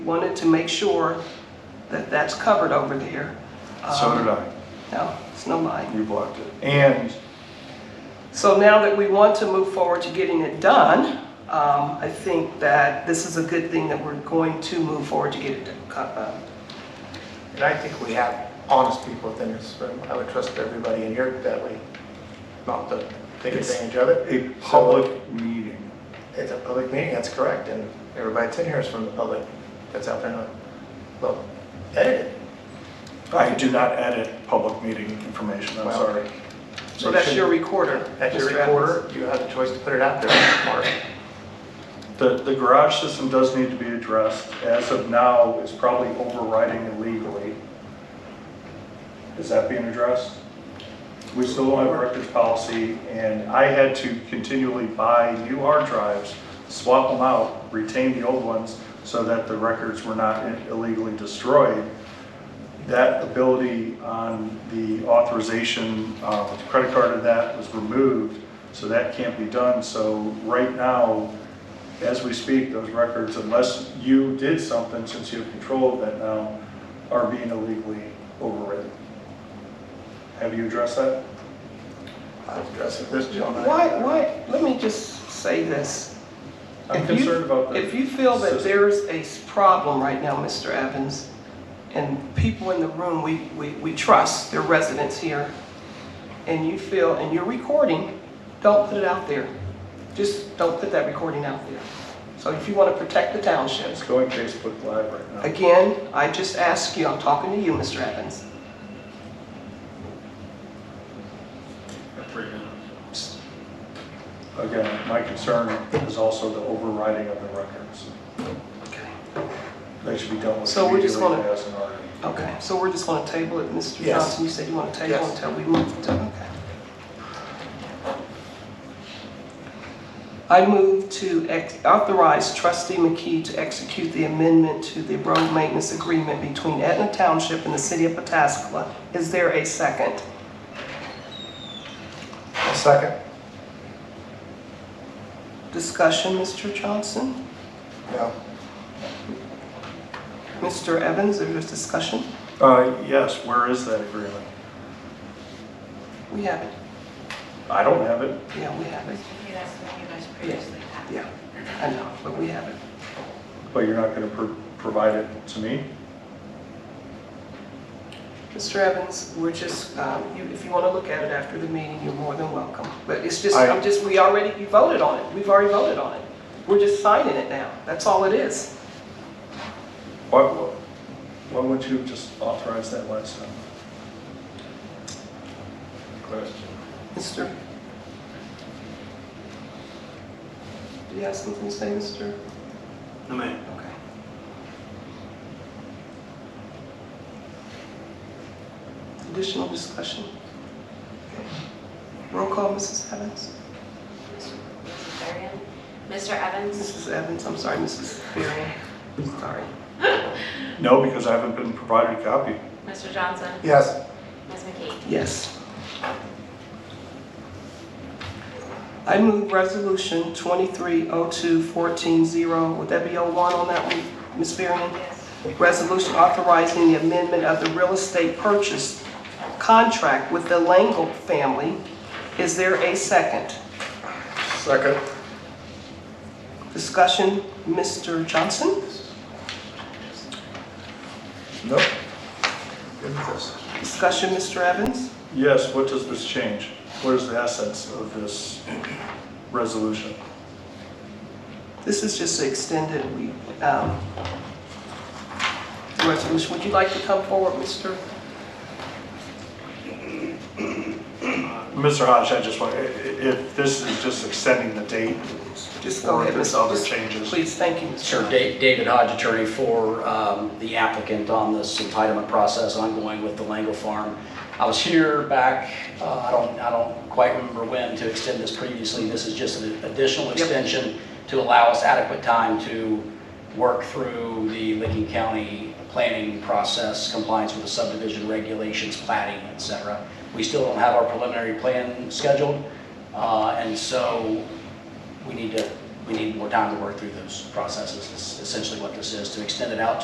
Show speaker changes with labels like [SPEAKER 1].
[SPEAKER 1] Wanted to make sure that that's covered over there.
[SPEAKER 2] So
[SPEAKER 1] Um,
[SPEAKER 2] did I.
[SPEAKER 1] No, it's no lie.
[SPEAKER 2] You blocked it. And
[SPEAKER 1] So now that we want to move forward to getting it done, um, I think that this is a good thing that we're going to move forward to get it done. Uh,
[SPEAKER 3] And I think we have honest people within this room. I would trust everybody in here that we not to take
[SPEAKER 2] It's
[SPEAKER 3] advantage of it.
[SPEAKER 2] a public meeting.
[SPEAKER 3] It's a public meeting, that's correct, and everybody that's in here is from the public that's out there. Well, edited.
[SPEAKER 2] I do not edit public meeting information, I'm
[SPEAKER 3] Wow.
[SPEAKER 2] sorry.
[SPEAKER 1] So that's your recorder.
[SPEAKER 3] At your
[SPEAKER 1] Mr. Evans.
[SPEAKER 3] recorder, you have the choice to put it out there, Mark.
[SPEAKER 2] The, the garage system does need to be addressed. As of now, it's probably overriding illegally. Is that being addressed? We still don't have a records policy, and I had to continually buy new hard drives, swap them out, retain the old ones, so that the records were not illegally destroyed. That ability on the authorization, uh, with the credit card of that was removed, so that can't be done. So right now, as we speak, those records, unless you did something since you have control of that now, are being illegally overridden. Have you addressed that?
[SPEAKER 3] I've addressed it this gentleman.
[SPEAKER 1] Why, why, let me just say this.
[SPEAKER 2] I'm
[SPEAKER 1] If you-
[SPEAKER 2] concerned about
[SPEAKER 1] If
[SPEAKER 2] the,
[SPEAKER 1] you feel that
[SPEAKER 2] System.
[SPEAKER 1] there's a s- problem right now, Mr. Evans, and people in the room, we, we, we trust, they're residents here, and you feel, and you're recording, don't put it out there. Just don't put that recording out there. So if you want to protect the township,
[SPEAKER 2] it's going Facebook Live right now.
[SPEAKER 1] again, I just ask you, I'm talking to you, Mr. Evans.
[SPEAKER 2] Again, my concern is also the overriding of the records.
[SPEAKER 1] Okay.
[SPEAKER 2] They should be dealt with
[SPEAKER 1] So we're just
[SPEAKER 2] immediately
[SPEAKER 1] gonna-
[SPEAKER 2] as an order.
[SPEAKER 1] Okay, so we're just going to table it, Mr.
[SPEAKER 3] Yes.
[SPEAKER 1] Johnson, you said you want to table
[SPEAKER 3] Yes.
[SPEAKER 1] until we move to, okay. I move to ex- authorize trustee McKee to execute the amendment to the road maintenance agreement between Etna Township and the city of Pataskala. Is there a second?
[SPEAKER 3] A second.
[SPEAKER 1] Discussion, Mr. Johnson?
[SPEAKER 3] No.
[SPEAKER 1] Mr. Evans, is there discussion?
[SPEAKER 2] Uh, yes, where is that agreement?
[SPEAKER 1] We have it.
[SPEAKER 2] I don't have it.
[SPEAKER 1] Yeah, we have it.
[SPEAKER 4] Okay, that's what you guys previously had.
[SPEAKER 1] Yeah, I know, but we have it.
[SPEAKER 2] But you're not gonna pro- provide it to me?
[SPEAKER 1] Mr. Evans, we're just, um, you- if you want to look at it after the meeting, you're more than welcome. But it's just,
[SPEAKER 2] I-
[SPEAKER 1] I'm just, we already, you voted on it. We've already voted on it. We're just signing it now. That's all it is.
[SPEAKER 2] Why, why wouldn't you have just authorize that last time?
[SPEAKER 3] Question.
[SPEAKER 1] Mr. Do you have something to say, Mr.?
[SPEAKER 5] No, ma'am.
[SPEAKER 1] Okay. Additional discussion? Okay. Roll call, Mrs. Evans?
[SPEAKER 4] Mrs. Berrien? Mr. Evans?
[SPEAKER 1] Mrs. Evans, I'm sorry, Mrs. Fearing. Sorry.
[SPEAKER 2] No, because I haven't been provided a copy.
[SPEAKER 4] Mr. Johnson?
[SPEAKER 3] Yes.
[SPEAKER 4] Ms. McKee?
[SPEAKER 1] Yes. I move resolution 2302-14-0. oh. Would that be 01 on that one, Ms. Varian?
[SPEAKER 4] Yes.
[SPEAKER 1] Resolution authorizing the amendment of the real estate purchase contract with the Langle family. Is there a second?
[SPEAKER 3] Second.
[SPEAKER 1] Discussion, Mr. Johnson?
[SPEAKER 3] Nope. Good with this.
[SPEAKER 1] Discussion, Mr. Evans?
[SPEAKER 2] Yes, what does this change? What is the essence of this resolution?
[SPEAKER 1] This is just extended, we, um, the resolution. Would you like to come forward, Mr.?
[SPEAKER 2] Mr. Hodge, I just want, i- i- if this is just extending the date,
[SPEAKER 1] Just go
[SPEAKER 2] Or if
[SPEAKER 1] ahead,
[SPEAKER 2] there's
[SPEAKER 1] Mr.
[SPEAKER 2] other
[SPEAKER 1] Just-
[SPEAKER 2] changes.
[SPEAKER 1] Please, thank you, Mr.
[SPEAKER 5] Sure,
[SPEAKER 1] Johnson.
[SPEAKER 5] Da- David Hodge, attorney for um, the applicant on this entitlement process ongoing with the Lango Farm. I was here back, uh, I don't, I don't quite remember when to extend this previously. This is just an additional extension to allow us adequate time to work through the Licking County planning process, compliance with the subdivision regulations, plating, et cetera. We still don't have our preliminary plan scheduled, uh, and so we need to we need more time to work through those processes, is essentially what this is, to extend it out